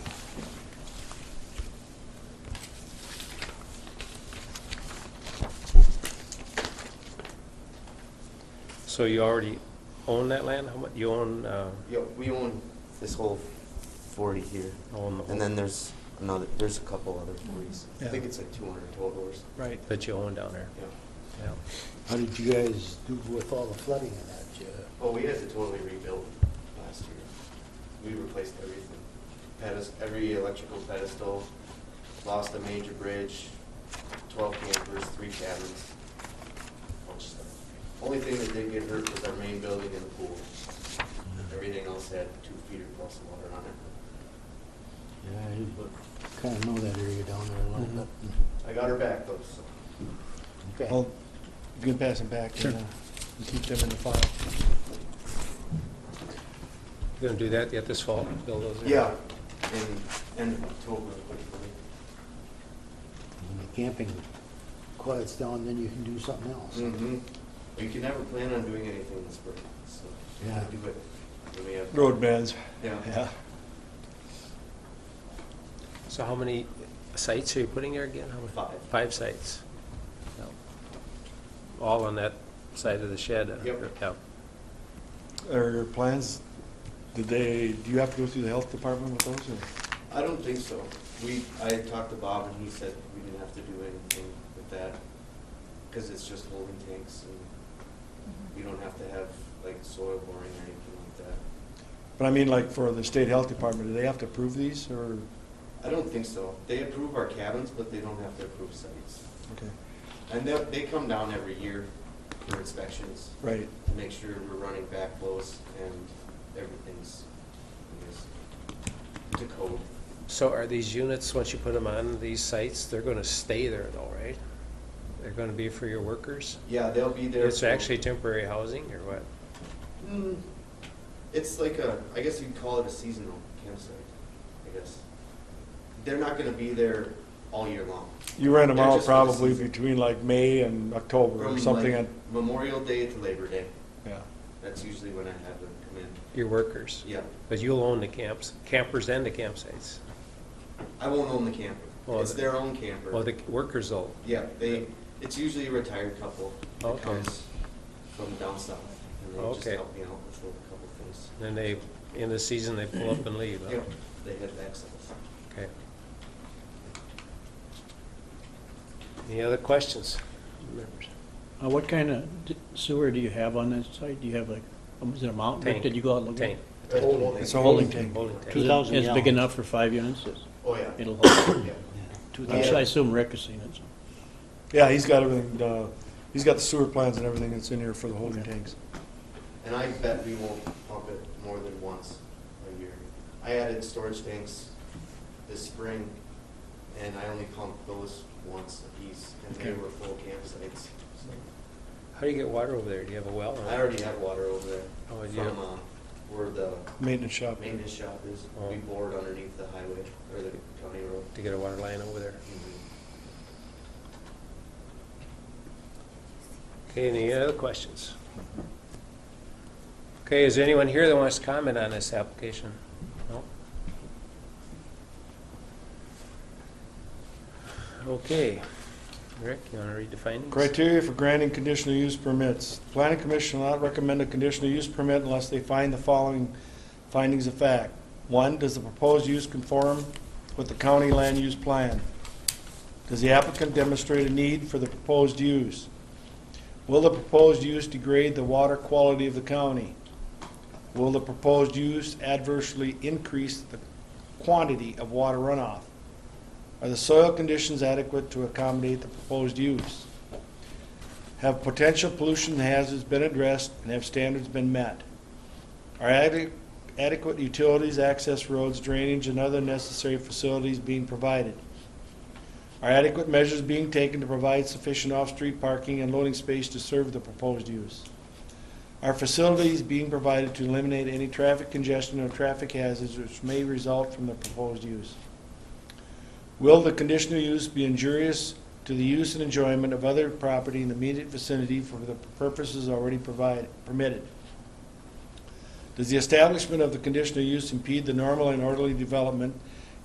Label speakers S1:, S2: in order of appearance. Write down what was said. S1: So you already own that land? How much, you own, uh,
S2: Yeah, we own this whole forty here,
S1: own the whole?
S2: and then there's another, there's a couple other forties. I
S3: Yeah.
S2: think it's like two hundred total or something,
S3: Right.
S1: That you own down there,
S2: yeah.
S1: yeah.
S4: How did you guys do with all the flooding and that? You-
S2: Well, Oh, we had to totally rebuild last year. We replaced everything. Pedest, every electrical pedestal, lost a major bridge, twelve campers, three cabins. bunch of stuff. Only thing that did get hurt was our main building and the pool.
S4: uh?
S2: Everything else had two feet or plus of water on it.
S4: Yeah,
S2: But
S4: I Mm-hmm. kind of know that area down there a little
S3: Mhm.
S4: bit.
S2: I got her back though, so.
S4: Okay.
S3: Well, you can pass them back.
S1: Sure.
S3: and, uh, and Keep them in the file.
S1: You gonna do that yet this fall, build those? in?
S2: Yeah, in, end of October, hopefully.
S4: When the camping quiets down, then you can do something else.
S2: Mm-hmm. You can never plan on doing anything this spring, so.
S4: Yeah.
S2: Do it. Let me have-
S3: Roadbeds.
S2: Yeah.
S3: Yeah.
S1: So how many sites are you putting there again? How many-
S2: Five.
S1: Five sites? Yeah. All on that side of the shed? uh,
S2: Yep.
S1: Yeah.
S3: Are your plans, did they, do you have to go through the health department with those or?
S2: I don't think so. We, I talked to Bob and he said we didn't have to do anything with that, because it's just holding tanks and we don't have to have like soil boring or anything like that.
S3: But I mean, like for the state health department, do they have to approve these or?
S2: I don't think so. They approve our cabins, but they don't have to approve sites.
S3: Okay,
S2: And they, they come down every year for inspections
S3: right.
S2: to make sure we're running backflows and everything's, I guess, to code.
S1: So are these units, once you put them on these sites, they're gonna stay there though, right? They're gonna be for your workers?
S2: Yeah, they'll be there.
S1: It's
S2: for-
S1: actually temporary housing or what?
S2: Mm, it's like a, I guess you'd call it a seasonal campsite, I guess. They're not gonna be there all year long.
S3: You rent them
S2: They're
S3: out
S2: just for the
S3: probably
S2: season.
S3: between like May and October
S2: From,
S3: or something.
S2: like,
S3: at-
S2: Memorial Day to Labor Day,
S3: Yeah.
S2: that's usually when I have them come in.
S1: Your workers?
S2: Yeah,
S1: But you'll own the camps, campers and the campsites?
S2: I won't own the camper,
S1: Well,
S2: it's
S1: the-
S2: their own camper.
S1: Well, the workers will,
S2: Yeah, they, it's usually a retired couple that
S1: Okay.
S2: comes from down south, and they just
S1: Okay.
S2: help me out with a couple things.
S1: then they, in the season, they pull up and leave, huh?
S2: Yeah, they have access.
S1: Okay. Any other questions? members?
S5: Uh, What kind of d- sewer do you have on that site? Do you have like, um, is it a mountain?
S1: Tank.
S5: Did you go out and look at
S1: Tank.
S5: it?
S3: It's a holding tank.
S1: Holding
S5: Is
S1: tank.
S5: it-
S4: 2,000
S5: It's big
S4: gallons.
S5: enough for five units? It's-
S2: Oh, yeah.
S5: It'll hold.
S2: Yeah.
S4: Two
S5: I
S2: Yeah.
S4: thousand.
S5: I assume Rick has seen it. so.
S3: Yeah, he's got everything, uh, he's got the sewer plans and everything that's in here for the holding
S5: Okay.
S3: tanks.
S2: And I bet we won't pump it more than once a year. I added storage tanks this spring, and I only pumped those once a piece, and they
S3: Okay.
S2: were full campsites. So
S1: How do you get water over there? Do you have a well? or-
S2: I already have water over there
S1: Oh,
S2: from
S1: yeah.
S2: uh, where the
S3: Maintenance shop.
S2: maintenance shop is.
S1: Oh.
S2: We bored underneath the highway, or the county road.
S1: To get a water line over there? Okay, any other questions? Okay, is there anyone here that wants to comment on this application? No? Okay. Rick, you want to read the findings?
S3: Criteria for granting conditional use permits. Planning Commission will not recommend a conditional use permit unless they find the following findings of fact. One, does the proposed use conform with the county land use plan? Does the applicant demonstrate a need for the proposed use? Will the proposed use degrade the water quality of the county? Will the proposed use adversely increase the quantity of water runoff? Are the soil conditions adequate to accommodate the proposed use? Have potential pollution hazards been addressed and have standards been met? Are ade- adequate utilities, access roads, drainage, and other necessary facilities being provided? Are adequate measures being taken to provide sufficient off-street parking and loading space to serve the proposed use? Are facilities being provided to eliminate any traffic congestion or traffic hazards which may result from the proposed use? Will the conditional use be injurious to the use and enjoyment of other property in the immediate vicinity for the purposes already provided, permitted? Does the establishment of the conditional use impede the normal and orderly development